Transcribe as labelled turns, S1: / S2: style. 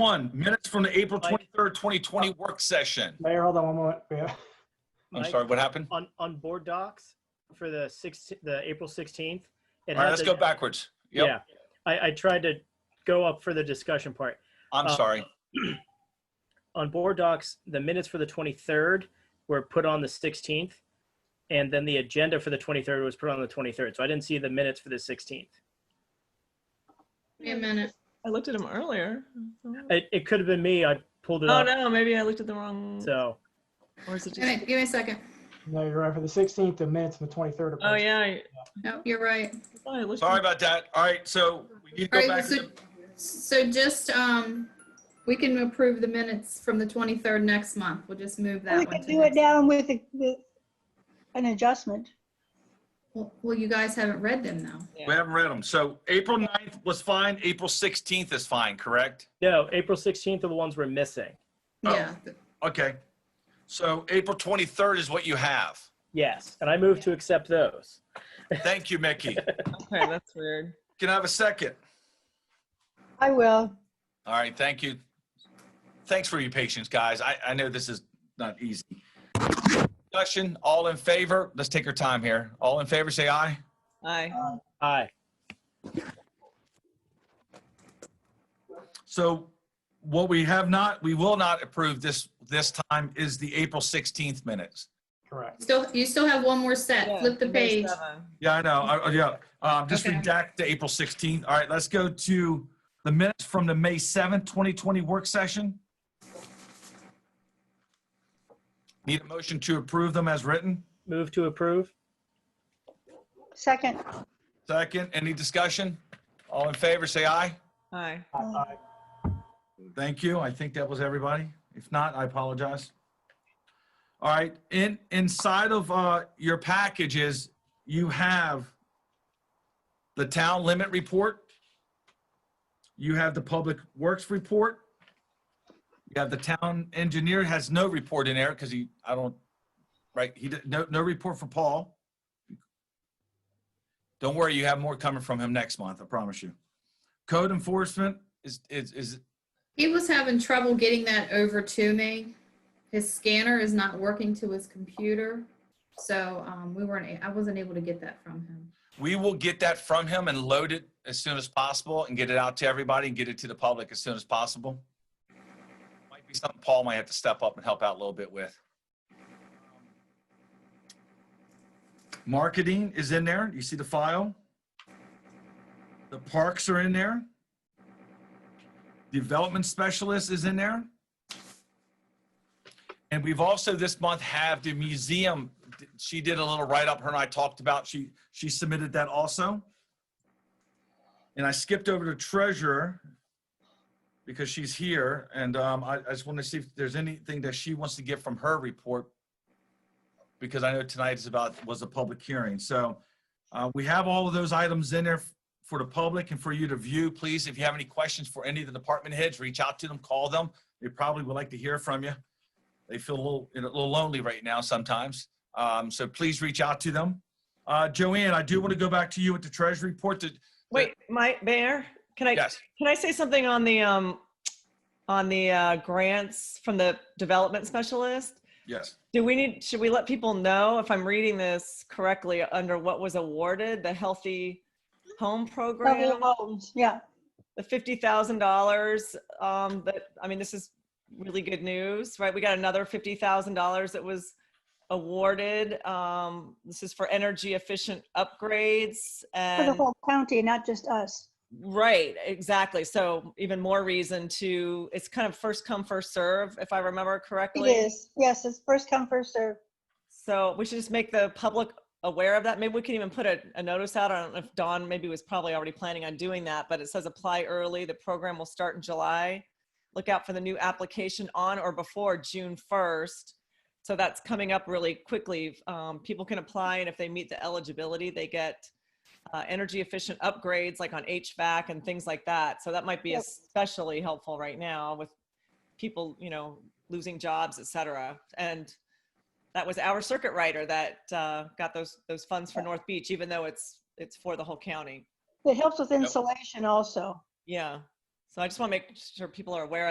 S1: One, minutes from the April 23rd, 2020 work session.
S2: Mayor, hold on one moment. We have-
S1: I'm
S3: Oh. Mike?
S1: sorry, what happened?
S3: on, on board docs for the six, the April 16th. it
S1: All right,
S3: had
S1: let's
S3: the-
S1: go backwards. Yep,
S3: Yeah, I, I tried to go up for the discussion part.
S1: I'm
S3: uh,
S1: sorry.
S3: On board docs, the minutes for the 23rd were put on the 16th. And then the agenda for the 23rd was put on the 23rd. So I didn't see the minutes for the 16th.
S4: Wait a minute.
S5: I looked at them earlier.
S3: It, it could have been me. I pulled it
S5: Oh
S3: up.
S5: no, maybe I looked at the wrong.
S3: So
S5: Or is it
S4: Wait, a
S5: just?
S4: minute, give me a second.
S2: No, you're right, for the 16th, the minutes and the 23rd. are
S5: Oh
S2: posted.
S5: yeah, I
S4: No, you're right.
S5: I thought I looked.
S1: Sorry
S5: at-
S1: about that. All right, so we need to go
S4: All right,
S1: back. to
S4: so-
S1: the-
S4: So just, um, we can approve the minutes from the 23rd next month. We'll just move that
S6: We
S4: one
S6: can
S4: to
S6: do it
S4: next.
S6: down with, a- with an adjustment.
S4: Well, well, you guys haven't read them though.
S1: We haven't read them. So April 9th was fine, April 16th is fine, correct?
S3: no, April 16th are the ones we're missing.
S1: Oh.
S4: Yeah,
S1: Okay. So April 23rd is what you have.
S3: Yes. And I moved to accept those.
S1: Thank you, Mickey.
S5: Okay, that's weird.
S1: Can I have a second?
S6: I will.
S1: All right, thank you. Thanks for your patience, guys. I, I know this is not easy. Discussion, all in favor? Let's take our time here. All in favor, say aye.
S5: Aye.
S4: Uh,
S3: Aye.
S1: So what we have not, we will not approve this, this time is the April 16th minutes.
S2: Correct.
S4: still, you still have one more set.
S5: Yeah,
S4: Flip the
S5: number
S4: page.
S5: seven.
S1: Yeah, I know. I- I- Yeah, Um, just
S4: Okay.
S1: redact the April 16th. All right, let's go to the minutes from the May 7th, 2020 work session. Need a motion to approve them as written?
S3: Move to approve.
S6: Second,
S1: Second, any discussion? All in favor, say aye.
S5: Aye.
S2: Aye.
S1: Thank you. I think that was everybody. If not, I apologize. All right, in, inside of uh, your packages, you have the town limit report. You have the public works report. You have the town engineer has no report in there because he, I don't, right, he, did- no, no report for Paul. Don't worry, you have more coming from him next month, I promise you. Code enforcement is, is, is,
S4: He was having trouble getting that over to me. His scanner is not working to his computer. So, um, we weren't, a- I wasn't able to get that from him.
S1: We will get that from him and load it as soon as possible and get it out to everybody and get it to the public as soon as possible. Might be something Paul might have to step up and help out a little bit with. Marketing is in there. You see the file? The parks are in there. Development specialist is in there. And we've also this month have the museum, she did a little write-up, her and I talked about, she, she submitted that also. And I skipped over to treasurer because she's here and um, I, I just want to see if there's anything that she wants to get from her report. Because I know tonight is about, was a public hearing, so uh, we have all of those items in there for the public and for you to view. Please, if you have any questions for any of the department heads, reach out to them, call them. They probably would like to hear from you they feel a little, you know, a little lonely right now sometimes. Um, so please reach out to them. Uh, Joanne, I do want to go back to you with the treasury report that,
S5: Wait, my mayor, can I
S1: yes,
S5: can I say something on the um on the uh, grants from the development specialist?
S1: yes.
S5: Do we need, should we let people know if I'm reading this correctly, under what was awarded, the Healthy Home
S6: Probably
S5: Program?
S6: homes, yeah.
S5: The fifty thousand dollars, um, that, I mean, this is really good news, right? We got another fifty thousand dollars that was awarded. Um, this is for energy efficient upgrades
S6: For the
S5: and,
S6: whole county, not just us.
S5: right, exactly. So even more reason to, it's kind of first come, first serve, if I remember
S6: It
S5: correctly.
S6: is, yes, it's first come, first served.
S5: So we should just make the public aware of that. Maybe we can even put a, a notice out. I don't know if Dawn maybe was probably already planning on doing that, but it says apply early. The program will start in July. Look out for the new application on or before June 1st. So that's coming up really quickly. Um, people can apply and if they meet the eligibility, they get uh, energy efficient upgrades like on HVAC and things like that. So that might be
S6: Yep.
S5: especially helpful right now with people, you know, losing jobs, et cetera. And that was our circuit rider that uh, got those those funds for North Beach, even though it's it's for the whole county.
S6: It helps with insulation also.
S5: Yeah. So I just want to make sure people are aware of